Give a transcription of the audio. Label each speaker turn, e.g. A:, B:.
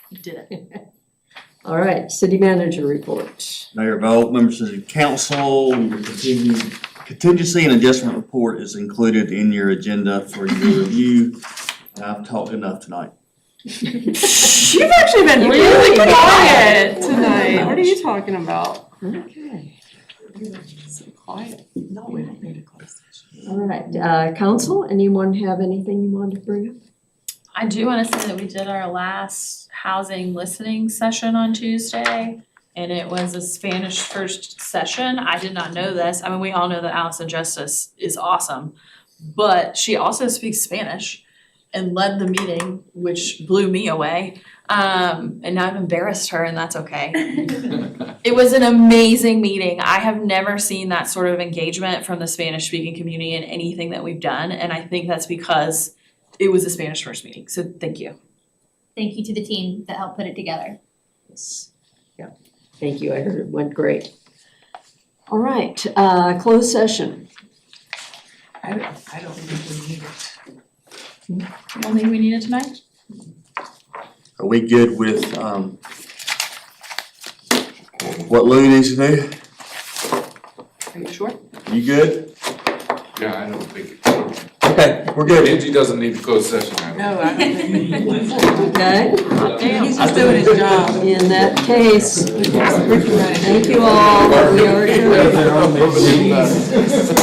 A: You did it.
B: All right, city manager report.
C: Mayor Vogt, members of the council, your contingent- contingency and adjustment report is included in your agenda for your review. And I've talked enough tonight.
D: You've actually been really quiet tonight. What are you talking about?
B: Okay,
D: So quiet.
A: No, we don't need a closed session.
B: all right, uh, council, anyone have anything you want to bring up?
E: I do wanna say that we did our last housing listening session on Tuesday. And it was a Spanish first session, I did not know this, I mean, we all know that Allison Justice is awesome. But she also speaks Spanish and led the meeting, which blew me away. Um, and now I've embarrassed her and that's okay. It was an amazing meeting. I have never seen that sort of engagement from the Spanish speaking community in anything that we've done. And I think that's because it was a Spanish first meeting. So thank you.
F: Thank you to the team that helped put it together.
B: Yes. Yeah, thank you, I heard it went great. All right, uh, closed session.
A: I don't, I don't think we need it.
E: I don't think we need it tonight.
C: Are we good with, um, what Louie needs to do?
E: Are you sure?
C: You good?
G: Yeah, I don't think, it-
C: Okay, we're good.
G: Angie doesn't need to close session, I don't
A: No, I don't think we need it.
B: Okay,
A: He's just doing his job.
B: in that case,
A: Ricky Ryan.
B: thank you all, we are adjourned.
G: think.